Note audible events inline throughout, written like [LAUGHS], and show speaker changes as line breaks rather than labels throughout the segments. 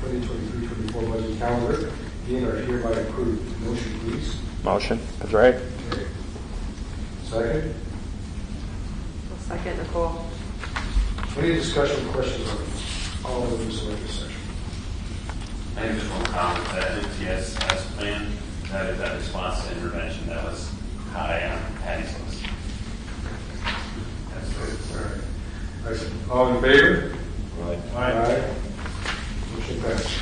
2023, 24 budget calendar being are hereby approved. Motion, please.
Motion, Pedray.
Second.
I'll second Nicole.
Any discussion, questions on all of this executive session?
I just want to comment that NCS has planned, that is that response to intervention that was high on Patty's list. That's
All right. Excellent. All in favor?
Right.
Aye. Motion passed.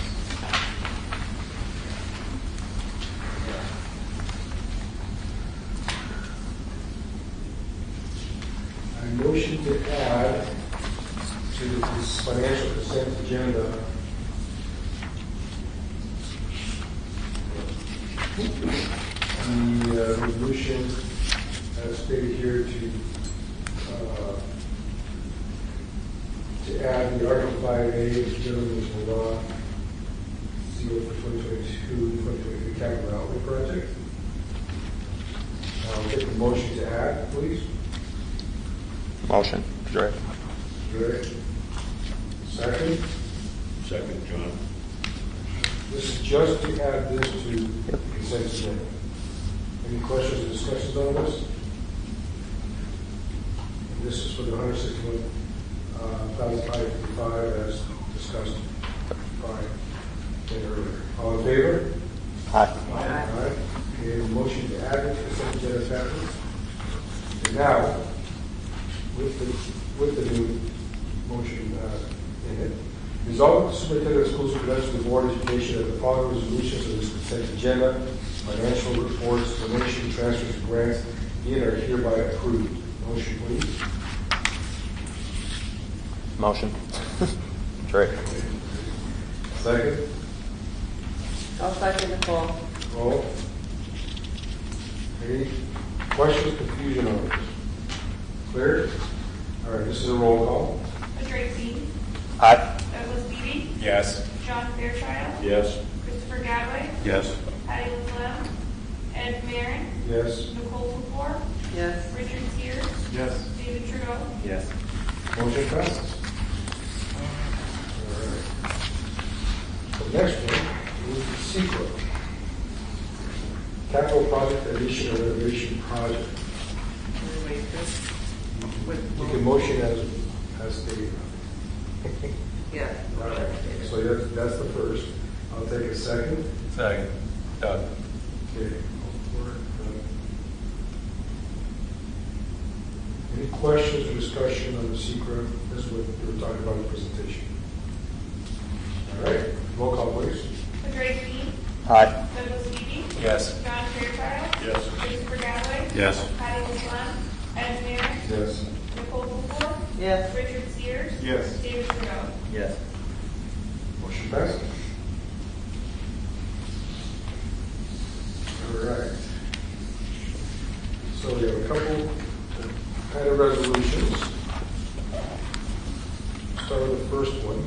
I motion to add to this financial consent agenda. The uh, resolution as stated here to, uh, to add the Article 5A, which governs the law, zero for 2022, 2023 capital outlay project. I'll take the motion to add, please.
Motion, Pedray.
Great. Second,
Second, John.
this is just to add this to the consent agenda. Any questions or discussions on this? And this is for the uh, 161,555 as discussed by Ed earlier. All in favor?
Aye.
All right. Okay, a motion to add it to consent agenda passes. And now, with the, with the new motion uh, in it, resolve that the superintendent of schools presents to the board of education that the following resolutions of this consent agenda, financial reports, donation, transfers, and grants, be and are hereby approved. Motion, please.
Motion. [LAUGHS] Pedray.
Second.
I'll second Nicole.
Roll. Any questions, confusion on this? Clear? All right, this is a roll call.
Patrick Lee,
Aye.
Douglas Beatty,
Yes.
John Fairchild,
Yes.
Christopher Gadway,
Yes.
Patty LaFleur, Ed Marin,
Yes.
Nicole Dubois,
Yes.
Richard Sears,
Yes.
David Trudeau,
Yes.
Motion passes. All right. The next one is the secret. Capital project addition or renovation project. You can motion as, as stated. [LAUGHS]
Yeah.
Right. So that's, that's the first. I'll take a second.
Second, Doug.
Okay. Any questions or discussion on the secret? This is what we were talking about in the presentation. All right, roll call please.
Patrick Lee,
Aye.
Douglas Beatty,
Yes.
John Fairchild,
Yes.
Christopher Gadway,
Yes.
Patty LaFleur, Ed Marin,
Yes.
Nicole Dubois,
Yes.
Richard Sears,
Yes.
David Trudeau.
Yes.
Motion passes. All right. So we have a couple kind of resolutions. Start with the first one.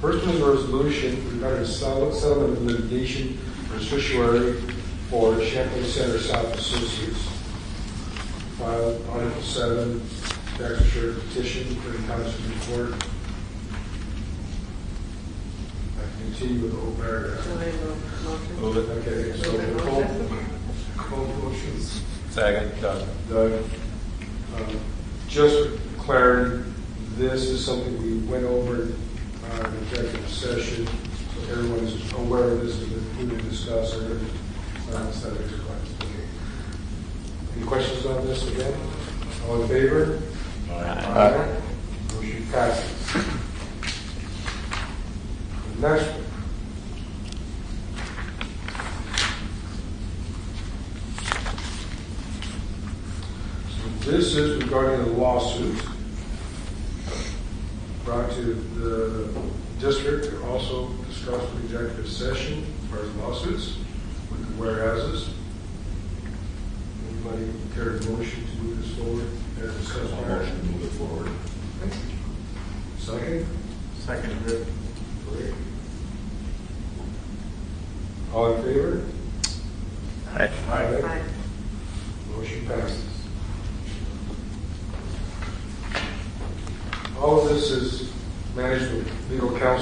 First one is a resolution regarding solid settlement of litigation for certiorari for Champlain Center South Associates. Filed Article 7, tax insurance petition for the County Supreme Court. I continue with the whole paragraph.
Somebody move motion.
Okay, so Nicole, Nicole motions.
Second, Doug.
Doug, um, just for clarity, this is something we went over uh, in executive session, so everyone's aware of this, and we didn't discuss or uh, subject to questions. Okay. Any questions on this again? All in favor?
Aye.
Motion passes. The Next one. So This is regarding a lawsuit brought to the district, They're also discussed in executive session, as far as lawsuits, with the whereases. Anybody care to motion to move this forward, or discuss?
Motion to move it forward.
Second?
Second, Rick.
Great. All in favor?
Aye.
Aye.
Motion passes. All of this is managed with legal counsel